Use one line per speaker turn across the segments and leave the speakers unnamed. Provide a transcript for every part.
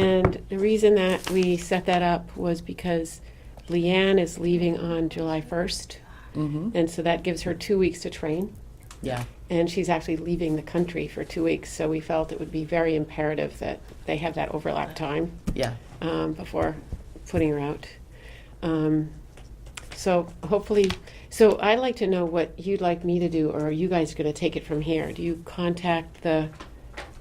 And the reason that we set that up was because Leanne is leaving on July 1st. And so that gives her two weeks to train.
Mm-hmm. Yeah,
And she's actually leaving the country for two weeks. So we felt it would be very imperative that they have that overlap time
yeah.
um, before putting her out. Um, so hopefully, so I'd like to know what you'd like me to do, or are you guys going to take it from here? Do you contact the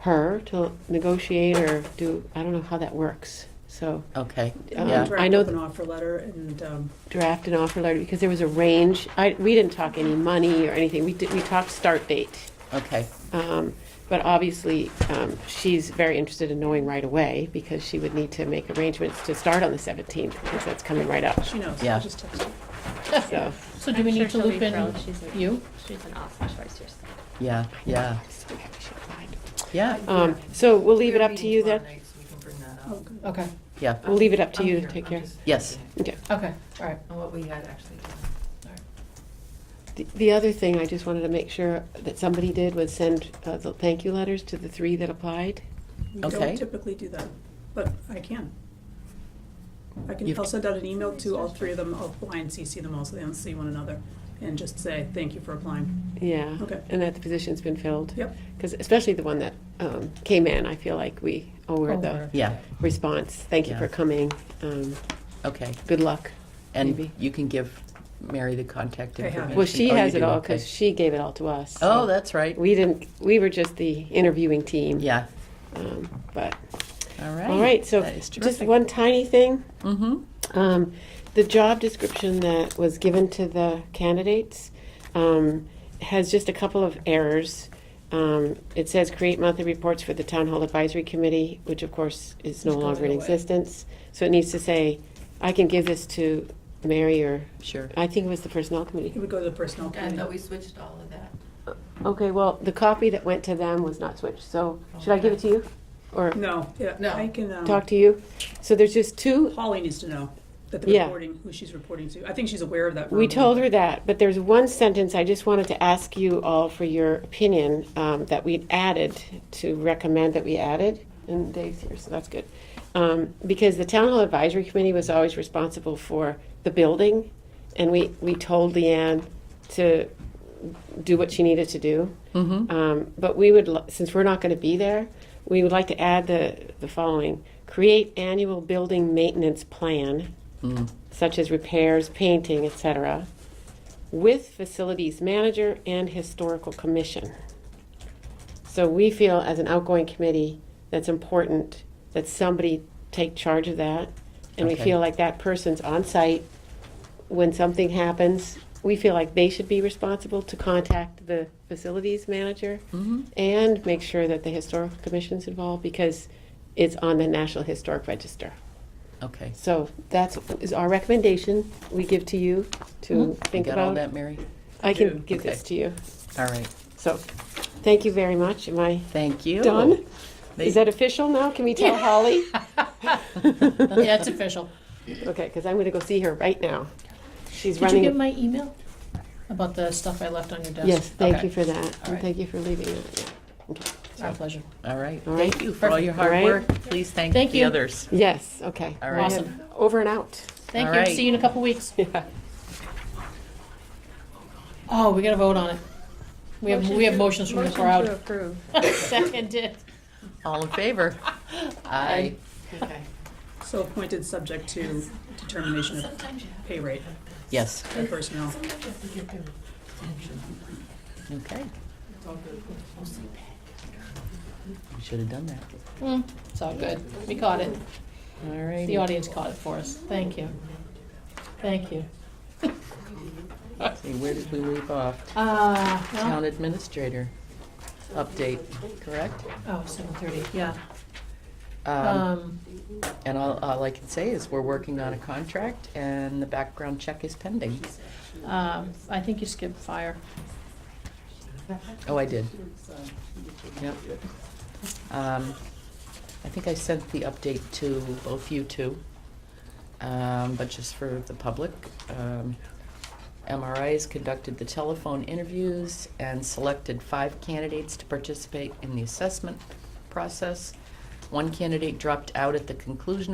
her to negotiate, or do I don't know how that works? So
Okay.
Um,
yeah.
I know
Draft up an offer letter and, um,
draft an offer letter because there was a range. I, we didn't talk any money or anything. We did, we talked start date,
Okay.
um, but obviously um, she's very interested in knowing right away because she would need to make arrangements to start on the 17th because that's coming right up.
she knows,
Yeah.
I just texted her.
So.
So do we
I'm
need to
sure she'll
loop
be
in
thrilled. She's a-
you?
She's an awesome choice yourself.
Yeah. Yeah. Yeah.
Um, so we'll leave it up to you then.
Oh, good.
Okay,
Yeah.
We'll leave it up to you to take care.
Yes.
Okay.
okay, all right.
On what we had actually done.
The, the other thing I just wanted to make sure that somebody did was send uh, the thank you letters to the three that applied.
We
Okay.
don't typically do that, but I can. I
You-
can, I'll send out an email to all three of them, I'll apply and CC them also, they don't see one another, and just say, thank you for applying.
Yeah.
Okay.
And that the position's been filled.
Yep.
Because especially the one that um, came in, I feel like we owe her the
Over.
Yeah.
response. Thank you
Yeah.
for coming. Um,
Okay.
good luck.
And
Maybe.
you can give Mary the contact
I have.
information.
Well, she
Oh, you
has it
do,
all
okay.
because she gave it all to us. so
Oh, that's right.
we didn't. We were just the interviewing team.
Yeah.
Um, but
All right.
All right, so
That is
just
terrific.
one tiny thing.
Mhm.
Um, The job description that was given to the candidates um, has just a couple of errors. Um, It says create monthly reports for the Town Hall Advisory Committee, which of course is no
It's
longer in
going away.
existence. So it needs to say, I can give this to Mary or,
Sure.
I think it was the Personnel
It
Committee.
would go to the personnel
I thought we
committee.
switched all of that.
Okay, well, the copy that went to them was not switched, so should I give it to you? Or
No, yeah,
No.
I can, um,
talk to you? So there's just two
Holly needs to know that the
Yeah.
reporting, who she's reporting to, I think she's aware of that.
We
verbally,
told her
but-
that, but there's one sentence I just wanted to ask you all for your opinion um, that we added, to recommend that we added, and Dave's here, so that's good. Um, Because the Town Hall Advisory Committee was always responsible for the building, and we, we told Leanne to do what she needed to do.
Mm-hmm.
Um, But we would, lo- since we're not going to be there, we would like to add the, the following. Create annual building maintenance plan
Mm.
such as repairs, painting, etc., with facilities manager and historical commission. So we feel as an outgoing committee, that's important that somebody take charge of that. And we
Okay.
feel like that person's on site when something happens. We feel like they should be responsible to contact the facilities manager
Mhm.
and make sure that the historical commission's involved because it's on the National Historic Register.
Okay.
So that's, is our recommendation we give to you to
You
think
got all
about.
that, Mary?
I can
Yeah.
give this
Okay.
to you.
All right.
So, thank you very much. Am I
Thank you.
done?
They-
Is that official now? Can we tell Holly?
Yeah, it's official.
Okay, because I'm going to go see her right now. She's
Did you
running.
get my email about the stuff I left on your desk?
Yes, thank
Okay.
you for that. And
right.
thank you for leaving it.
It's our pleasure.
All right.
All
Thank
right.
you for all your
All
hard
right.
work. Please thank
Thank
the
you.
others.
Yes, okay.
All right.
Awesome.
Over and out.
Thank
All
you,
right.
see you in a couple weeks.
Yeah.
Oh, we gotta vote on it. We have, we have motions from the crowd.
approve.
Seconded.
All in favor? Aye.
Okay.
So appointed subject to determination of
Sometimes you have,
pay rate
Yes.
and personnel.
sometimes you have to get their attention.
Okay.
It's all good. Mostly bad.
We should have done that.
Mm, It's all good, we caught it.
All right.
The audience caught it for us, thank you. Thank you.
See, where did we leave off?
Uh,
Town
well,
administrator update, correct?
oh, seven thirty, yeah.
Um,
Um,
And all, all I can say is we're working on a contract and the background check is pending.
um, I think you skipped fire.
Oh, I did. Yep. Um, I think I sent the update to both you two, um, but just for the public. um, MRIs conducted the telephone interviews and selected five candidates to participate in the assessment process. One candidate dropped out at the conclusion of